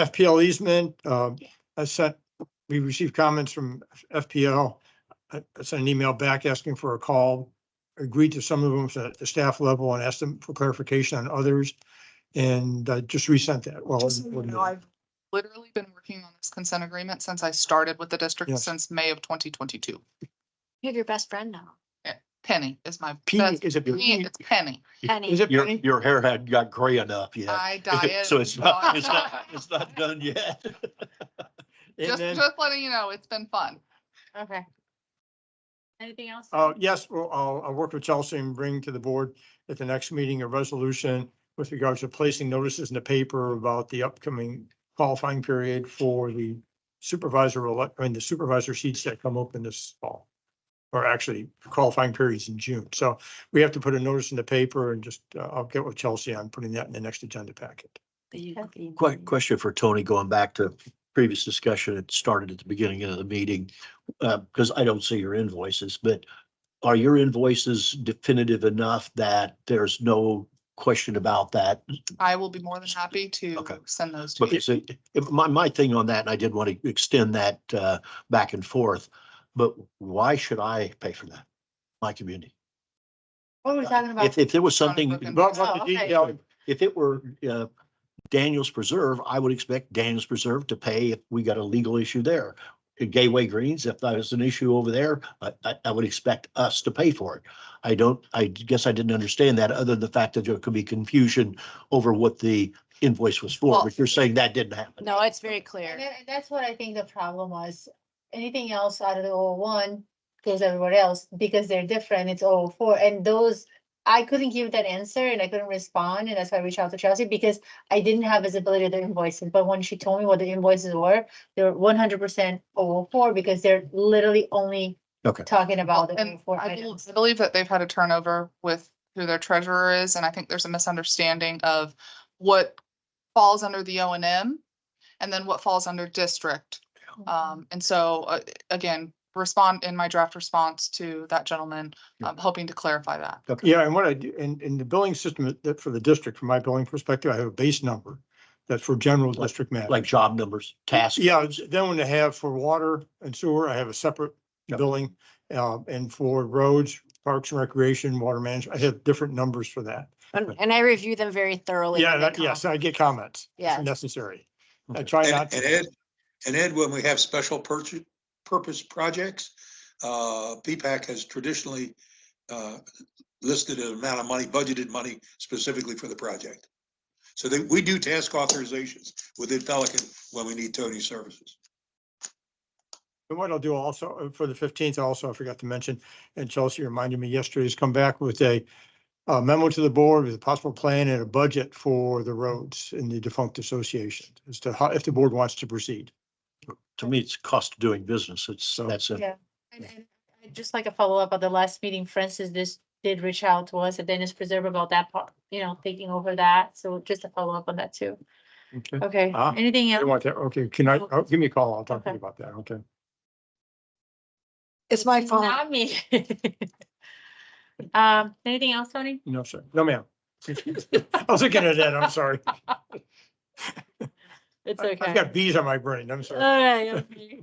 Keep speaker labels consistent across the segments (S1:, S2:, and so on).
S1: FPL easement, um, I sent, we received comments from FPL. I I sent an email back asking for a call, agreed to some of them at the staff level and asked them for clarification on others. And I just resent that. Well,
S2: Just so you
S1: one
S2: know,
S1: minute.
S2: I've-
S3: literally been working on this consent agreement since I started with the district
S1: Yes.
S3: since May of twenty twenty-two.
S2: You have your best friend now.
S3: Penny is my
S1: Penny,
S3: best,
S1: is it?
S3: Penny,
S1: Penny?
S3: it's Penny.
S2: Penny.
S1: Is it
S4: Your,
S1: Penny?
S4: your hair had got gray enough yet.
S3: I diet.
S4: So it's not, it's not, it's not done yet.
S1: And
S3: Just,
S1: then,
S3: just letting you know, it's been fun.
S2: Okay. Anything else?
S1: uh, yes, well, I'll, I'll work with Chelsea and bring to the board at the next meeting a resolution with regards to placing notices in the paper about the upcoming qualifying period for the supervisor, elect- I mean, the supervisor seats that come open this fall. Or actually qualifying periods in June. So we have to put a notice in the paper and just, uh, I'll get with Chelsea on putting that in the next agenda packet.
S4: Quick question for Tony, going back to previous discussion, it started at the beginning of the meeting, uh, because I don't see your invoices, but are your invoices definitive enough that there's no question about that?
S3: I will be more than happy
S4: Okay.
S3: to send those to you.
S4: Because it- if- my, my thing on that, and I did want to extend that, uh, back and forth, but why should I pay for that? My community?
S2: What were we talking about?
S4: If, if there was something,
S3: Brooklyn.
S1: But but the
S2: Oh, okay.
S1: detail,
S4: if it were uh, Daniel's Preserve, I would expect Daniel's Preserve to pay if we got a legal issue there. At Gateway Greens, if that was an issue over there, I, I, I would expect us to pay for it. I don't, I guess I didn't understand that, other than the fact that there could be confusion over what the invoice was for,
S3: Well-
S4: but you're saying that didn't happen.
S5: No, it's very
S2: And
S5: clear.
S2: that- and that's what I think the problem was. Anything else out of the O one goes everywhere else because they're different. It's O four and those. I couldn't give that answer and I couldn't respond and that's why I reached out to Chelsea because I didn't have visibility of the invoices. But when she told me what the invoices were, they were one hundred percent O four because they're literally only.
S4: Okay.
S2: Talking about the
S3: And
S2: O four
S3: I bel-
S2: items.
S3: I believe that they've had a turnover with who their treasurer is, and I think there's a misunderstanding of what falls under the O and M and then what falls under district.
S2: Mm-hmm.
S3: Um, and so, uh, again, respond in my draft response to that gentleman,
S4: Yeah.
S3: I'm hoping to clarify that.
S1: Yeah, and what I do, in, in the billing system that for the district, from my billing perspective, I have a base number that's for general
S4: Like-
S1: district matters.
S4: Like job numbers, tasks.
S1: Yeah, then when I have for water and sewer, I have a separate
S4: Yep.
S1: billing. Uh, and for roads, parks and recreation, water management, I have different numbers for that.
S5: And and I review them very thoroughly.
S1: Yeah,
S5: when they
S1: that, yes,
S5: come.
S1: I get comments. if
S5: Yes.
S1: Necessary. I
S4: Okay.
S1: try
S6: And-
S1: not
S6: And
S1: to.
S6: Ed, and Ed, when we have special purchase, purpose projects, uh, PPAC has traditionally, uh, listed an amount of money, budgeted money specifically for the project. So they, we do task authorizations within Pelican when we need Tony's services.
S1: And what I'll do also uh, for the fifteenth, also I forgot to mention, and Chelsea reminded me yesterday, is come back with a uh, memo to the board with a possible plan and a budget for the roads in the defunct association as to how, if the board wants to proceed.
S4: To me, it's cost of doing business. It's, that's it.
S2: Yeah. And, and I'd just like a follow-up at the last meeting, Francis, this did reach out to us at Dennis Preserve about that part, you know, taking over that. So just a follow-up on that too.
S1: Okay.
S2: Okay,
S1: Ah,
S2: anything
S1: You
S2: else?
S1: want that? Okay, can I, oh, give me a call. I'll talk to you
S2: Okay.
S1: about that. Okay.
S5: It's my fault.
S2: Not me. Um, anything else, Tony?
S1: No, sir. No, ma'am. I was looking at that. I'm sorry.
S2: It's
S1: I- I've
S2: okay.
S1: got bees on my brain. I'm
S2: All
S1: sorry.
S2: right, okay.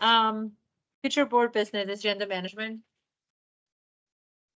S2: Um, future board business, agenda management.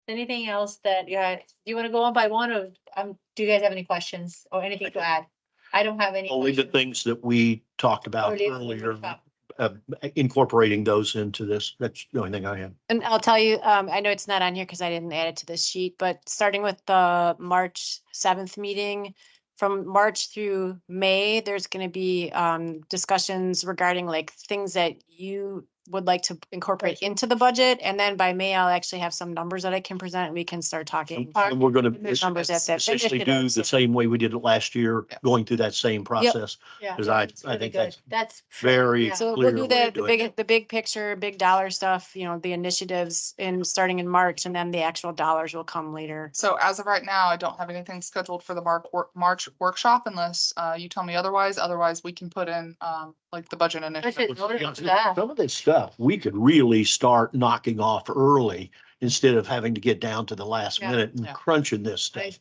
S2: Anything else that you had, do you want to go on by one or, um, do you guys have any questions or anything to add? I don't have any.
S4: Only the
S2: questions.
S4: things that we talked
S2: Or
S4: about
S2: leave it to
S4: earlier,
S2: workshop.
S4: uh, incorporating those into this. That's the only thing I have.
S5: And I'll tell you, um, I know it's not on here because I didn't add it to this sheet, but starting with the March seventh meeting, from March through May, there's gonna be, um, discussions regarding like things that you would like to incorporate into the budget. And then by May, I'll actually have some numbers that I can present and we can start talking.
S2: Park-
S4: And we're gonna
S5: and there's numbers at that
S4: essentially do
S5: initiatives.
S4: the same way we did it last year,
S3: Yeah.
S4: going through that same process.
S2: Yeah.
S4: 'Cause I-
S2: it's
S4: I
S2: really
S4: think
S2: good.
S4: that's
S2: That's.
S4: Very
S2: Yeah.
S5: So
S4: clear
S5: we'll do
S4: way to
S5: the, the
S4: do it.
S5: big, the big picture, big dollar stuff, you know, the initiatives in, starting in March and then the actual dollars will come later.
S3: So as of right now, I don't have anything scheduled for the Mark, wor- March workshop unless, uh, you tell me otherwise. Otherwise, we can put in, um, like the budget initiative.
S2: Budget voted for that.
S4: Some of this stuff, we could really start knocking off early instead of having to get down to the last
S2: Yeah,
S4: minute and
S3: yeah.
S4: crunching this
S2: I-
S4: stuff.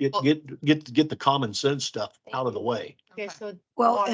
S4: Get,
S3: Well-
S4: get, get, get the common sense stuff out of the way.
S2: Okay,
S3: Okay.
S2: so.
S7: Well,
S2: Or-